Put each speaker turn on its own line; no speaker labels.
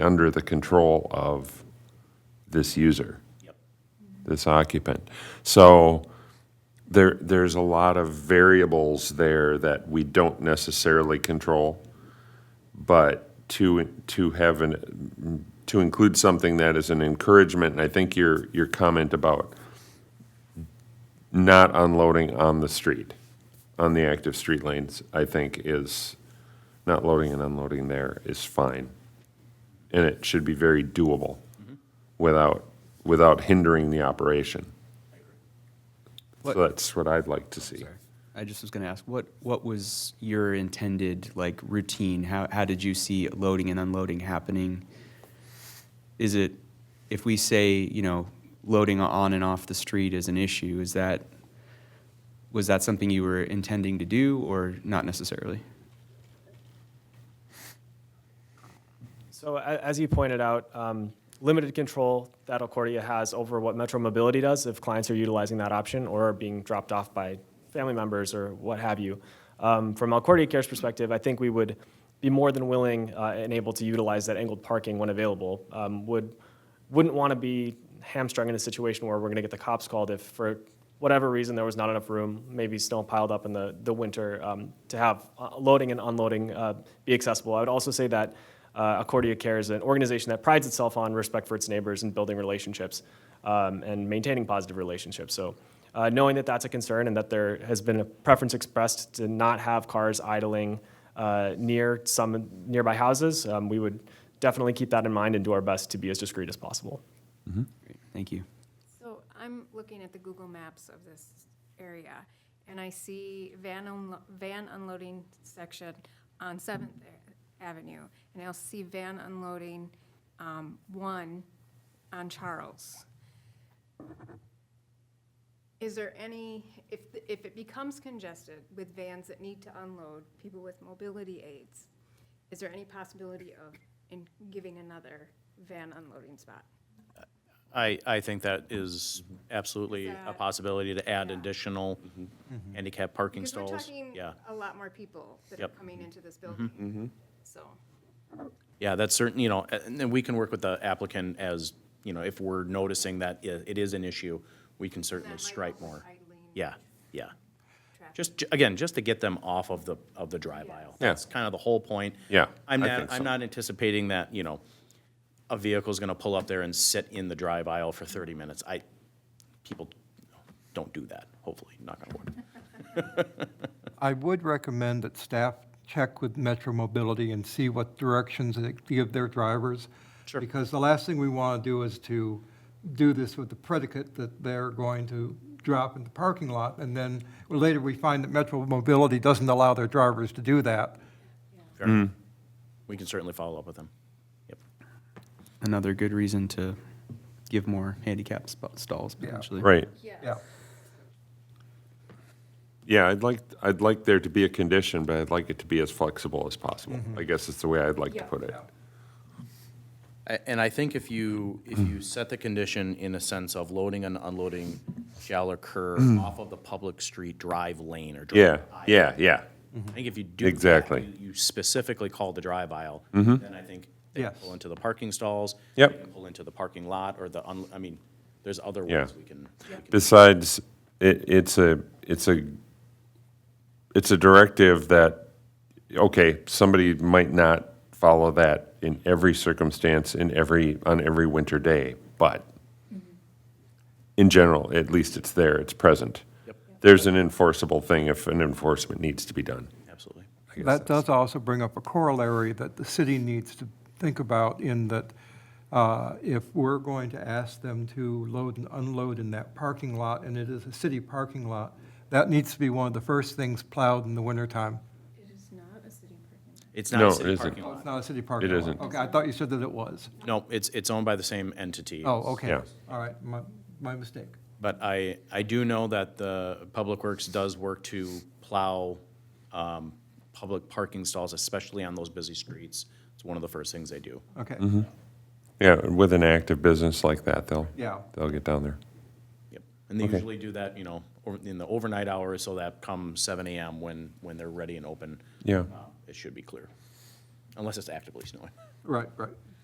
under the control of this user, this occupant. So there, there's a lot of variables there that we don't necessarily control. But to, to have an, to include something that is an encouragement, and I think your, your comment about not unloading on the street, on the active street lanes, I think is, not loading and unloading there is fine. And it should be very doable without, without hindering the operation. So
What-
that's what I'd like to see.
Sorry. I just was going to ask, what, what was your intended, like, routine? How, how did you see loading and unloading happening? Is it, if we say, you know, loading on and off the street is an issue, is that, was that something you were intending to do or not necessarily?
So a- as you pointed out, um, limited control that Alcordia has over what Metro Mobility does if clients are utilizing that option or are being dropped off by family members or what have you. Um, From Alcordia Care's perspective, I think we would be more than willing uh, and able to utilize that angled parking when available. Um, Would, wouldn't want to be hamstrung in a situation where we're going to get the cops called if for whatever reason there was not enough room, maybe snow piled up in the, the winter, um, to have uh, loading and unloading uh, be accessible. I would also say that uh, Accordia Care is an organization that prides itself on respect for its neighbors and building relationships um, and maintaining positive relationships. So, uh, knowing that that's a concern and that there has been a preference expressed to not have cars idling uh, near some nearby houses, um, we would definitely keep that in mind and do our best to be as discreet as possible.
Great, Thank you.
So I'm looking at the Google Maps of this area, and I see van, unlo- van unloading section on Seventh Avenue, and I'll see van unloading, um, one on Charles. Is there any, if, if it becomes congested with vans that need to unload people with mobility aids, is there any possibility of in giving another van unloading spot?
I, I think that is absolutely a
that-
possibility to add additional handicap parking
Because we're
stalls.
talking
Yeah,
a lot more people that are
Yep. Mm-hmm.
coming into this building. So,
yeah, that's certain, you know, and then we can work with the applicant as, you know, if we're noticing that i- it is an issue, we can certainly
might
stripe
help with
more.
idling
Yeah, yeah.
traffic.
Just, ju- again, just to get them off of the, of the drive aisle.
Yeah.
That's kind of the whole point.
Yeah,
I'm
I
not,
think so.
I'm not anticipating that, you know, a vehicle's gonna pull up there and sit in the drive aisle for thirty minutes. I, people don't do that, hopefully, knock on wood.
I would recommend that staff check with Metro Mobility and see what directions they give their drivers. Sure. Because the last thing we want to do is to do this with the predicate that they're going to drop in the parking lot, and then later we find that Metro Mobility doesn't allow their drivers to do that.
Fair enough. We can certainly follow up with them. Yep.
Another good reason to give more handicap sp- stalls potentially.
Right.
Yeah.
Yeah, I'd like, I'd like there to be a condition, but I'd like it to be as flexible as possible.
Mm-hmm.
I guess it's the way I'd like to
Yeah.
put it.
A- And I think if you, if you set the condition in a sense of loading and unloading shall occur off of the public street drive lane or
Mm. Yeah,
drive aisle.
yeah, yeah.
I think if you do. that,
Exactly. Mm-hmm.
you- You specifically call the drive aisle, then I think they can
Yes.
pull into the parking stalls. they
Yep.
can Pull into the parking lot or the, un- I mean, there's other
Yeah.
ways we can. we can-
Besides, it, it's a, it's a, it's a directive that, okay, somebody might not follow that in every circumstance, in every, on every winter day, but in general, at least it's there, it's present.
Yep.
There's an enforceable thing if an enforcement needs to be done.
Absolutely.
I guess
That
that's-
does also bring up a corollary that the city needs to think about in that uh, if we're going to ask them to load and unload in that parking lot, and it is a city parking lot, that needs to be one of the first things plowed in the wintertime.
It is not a city parking lot.
It's not
No,
a
it
city
isn't.
parking
Oh, it's
lot.
not a city parking lot?
isn't.
Okay, I thought you said that it was.
No, it's, it's owned by the same entity.
Oh, okay.
Yeah.
All right, my, my mistake.
But I, I do know that the Public Works does work to plow um, public parking stalls, especially on those busy streets. It's one of the first things they do.
Okay,
Mm-hmm. Yeah, with an active business like that, they'll,
yeah.
they'll get down there.
Yep. And they
Okay.
usually do that, you know, or- in the overnight hours, so that come seven AM when, when they're ready and open.
Yeah.
uh, It should be clear, unless it's actively snowing.
Right, right.